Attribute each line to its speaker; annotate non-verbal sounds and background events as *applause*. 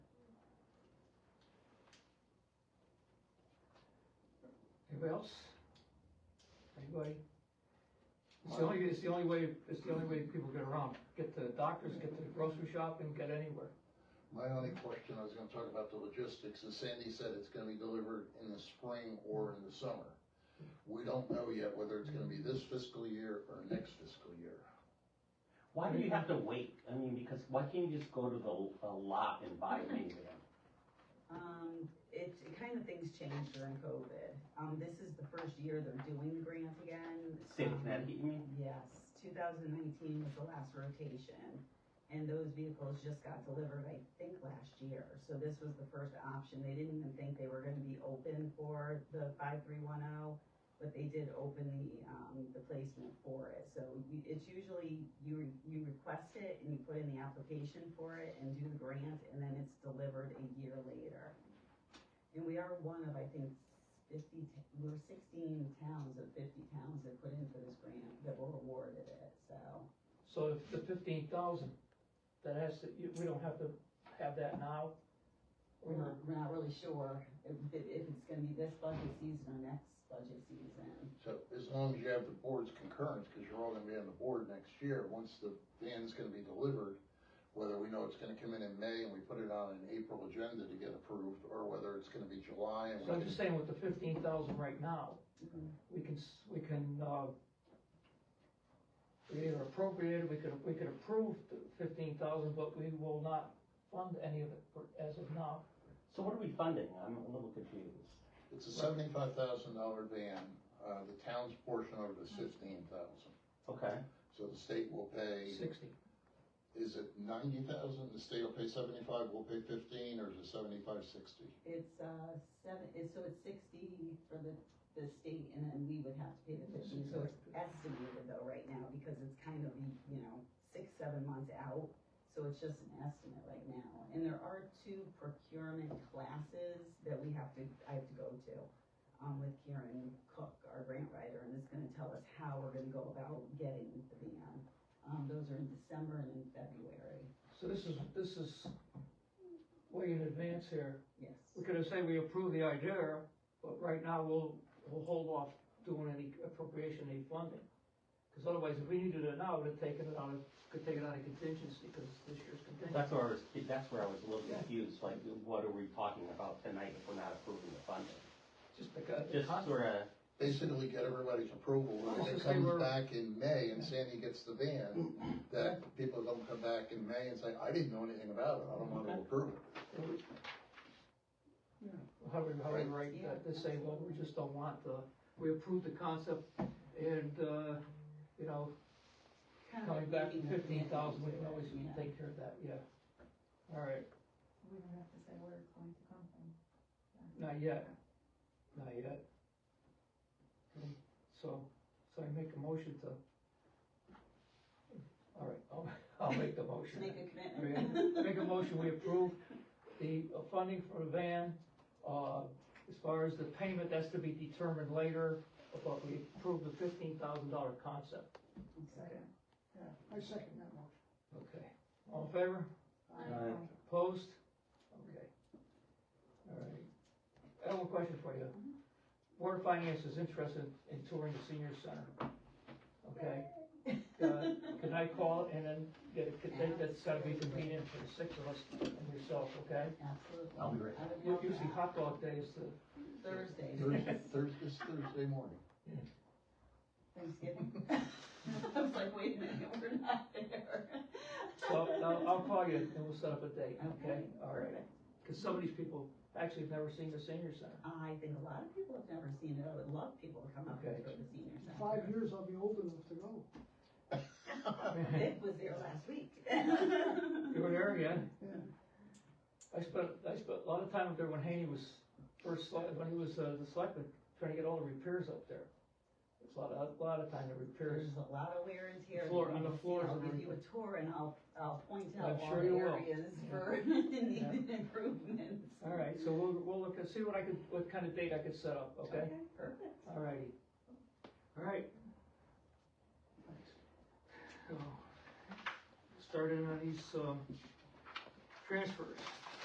Speaker 1: else? Anybody? It's the only, it's the only way, it's the only way people get around, get to the doctors, get to the grocery shop and get anywhere.
Speaker 2: My only question, I was gonna talk about the logistics, is Sandy said it's gonna be delivered in the spring or in the summer. We don't know yet whether it's gonna be this fiscal year or next fiscal year.
Speaker 3: Why do you have to wait? I mean, because why can't you just go to the, the lot and buy it in there?
Speaker 4: Um, it, it kind of things changed during COVID. Um, this is the first year they're doing the grant again.
Speaker 3: State
Speaker 4: Um,
Speaker 3: of Connecticut, you mean?
Speaker 4: Yes, two thousand nineteen was the last rotation, and those vehicles just got delivered, I think, last year. So this was the first option. They didn't even think they were gonna be open for the five three one oh, but they did open the, um, the placement for it. So you, it's usually, you, re- you request it and you put in the application for it and do the grant, and then it's delivered a year later. And we are one of, I think, fifty, t- we're sixteen towns of fifty towns that put in for this grant that were awarded it, so.
Speaker 1: So if the fifteen thousand, that has to, you- we don't have to have that now?
Speaker 4: We're not, we're not really sure if, if if it's gonna be this budget season or next budget season.
Speaker 2: So as long as you have the board's concurrence, because you're all gonna be on the board next year, once the van's gonna be delivered, whether we know it's gonna come in in May and we put it on an April agenda to get approved, or whether it's gonna be July and we
Speaker 1: So I'm
Speaker 2: can
Speaker 1: just saying with the fifteen thousand right now, we can, s- we can, uh, we either appropriate it, we could, we could approve the fifteen thousand, but we will not fund any of it for- as of now.
Speaker 3: So what are we funding? I'm a little confused.
Speaker 2: It's a seventy-five thousand dollar van, uh, the town's portion of it is fifteen thousand,
Speaker 3: Okay.
Speaker 2: so the state will pay,
Speaker 1: Sixty.
Speaker 2: is it ninety thousand, the state will pay seventy-five, we'll pay fifteen, or is it seventy-five, sixty?
Speaker 4: It's, uh, seven, it's, so it's sixty for the, the state, and then we would have to pay the fifteen, so it's estimated though right now, because it's kind of, you know, six, seven months out, so it's just an estimate right now. And there are two procurement classes that we have to, I have to go to, um, with Karen Cook, our grant writer, and it's gonna tell us how we're gonna go about getting the van. Um, those are in December and in February,
Speaker 1: So this is, this is way in advance here.
Speaker 4: yes.
Speaker 1: We could have said we approve the idea, but right now we'll, we'll hold off doing any appropriation, any funding. Because otherwise, if we needed it now, we'd have taken it out of, could take it out of contingency, because this year's contingency.
Speaker 3: That's where I was, that's where I was a little confused, like, what are we talking about tonight if we're not approving the funding?
Speaker 1: Just because.
Speaker 3: Just sort of,
Speaker 2: Basically get everybody's approval, and if it
Speaker 1: Almost like they were-
Speaker 2: comes back in May and Sandy gets the van, that people don't come back in May and say, I didn't know anything about it, I don't wanna
Speaker 3: Okay.
Speaker 2: approve it.
Speaker 1: How we, how we write that, to say, well, we just don't want the, we approved the concept and, uh, you know,
Speaker 4: Kind of
Speaker 1: coming
Speaker 4: like
Speaker 1: back
Speaker 4: making a
Speaker 1: fifteen thousand, we can
Speaker 4: commitment to it,
Speaker 1: always
Speaker 4: yeah.
Speaker 1: take care of that, yeah. All right,
Speaker 5: We don't have to say where it's going to come from.
Speaker 1: not yet, not yet. Um, So, so I make a motion to. All right, I'll, *laughs* I'll make the
Speaker 4: To
Speaker 1: motion.
Speaker 4: make a
Speaker 1: Yeah,
Speaker 4: commitment.
Speaker 1: Make a motion, we approve the uh, funding for the van, uh, as far as the payment, that's to be determined later, but we approve the fifteen thousand dollar concept.
Speaker 5: *laughs* Second.
Speaker 6: Yeah, I second that motion.
Speaker 1: Okay. All in favor?
Speaker 3: Aye.
Speaker 1: Opposed? Okay. All right. I have one question for you. Board of Finance is interested in touring the senior center. Okay? Uh, Can I call and then get a, date that's gotta be convenient for the six of us and yourself, okay?
Speaker 4: Absolutely.
Speaker 3: I'll be right
Speaker 4: I would
Speaker 1: U-
Speaker 4: love
Speaker 1: Usually
Speaker 4: that.
Speaker 1: hot dog day is the,
Speaker 4: Thursday,
Speaker 2: Thursday, Thursday, this Thursday morning.
Speaker 4: Thanksgiving. *laughs* I was like, wait a minute, we're not there.
Speaker 1: so I'll, I'll call you and we'll set up a date, okay?
Speaker 4: Okay.
Speaker 1: All right. Cause some of these people actually have never seen the senior center.
Speaker 4: I think a lot of people have never seen it. I would love people to come up here
Speaker 1: Okay.
Speaker 4: for the senior
Speaker 6: In
Speaker 4: center.
Speaker 6: five years, I'll be old enough to go.
Speaker 4: Vic was there last week.
Speaker 1: You were there, yeah?
Speaker 6: Yeah.
Speaker 1: I spent, I spent a lot of time up there when Haney was first, sele- when he was uh, the selectman, trying to get all the repairs up there. It's a lot, of- a lot of time to repairs.
Speaker 4: There's a lot of wear and tear.
Speaker 1: Floor- on the floors
Speaker 4: I'll
Speaker 1: and
Speaker 4: give you a tour and I'll, I'll point
Speaker 1: I'm
Speaker 4: out all
Speaker 1: sure
Speaker 4: the
Speaker 1: you will.
Speaker 4: areas
Speaker 1: *laughs*
Speaker 4: for *laughs* needed improvements.
Speaker 1: All right, so we'll, we'll look and see what I could, what kind of date I could set up, okay?
Speaker 4: Perfect.
Speaker 1: All righty. All right. So, Starting on these, um, transfers.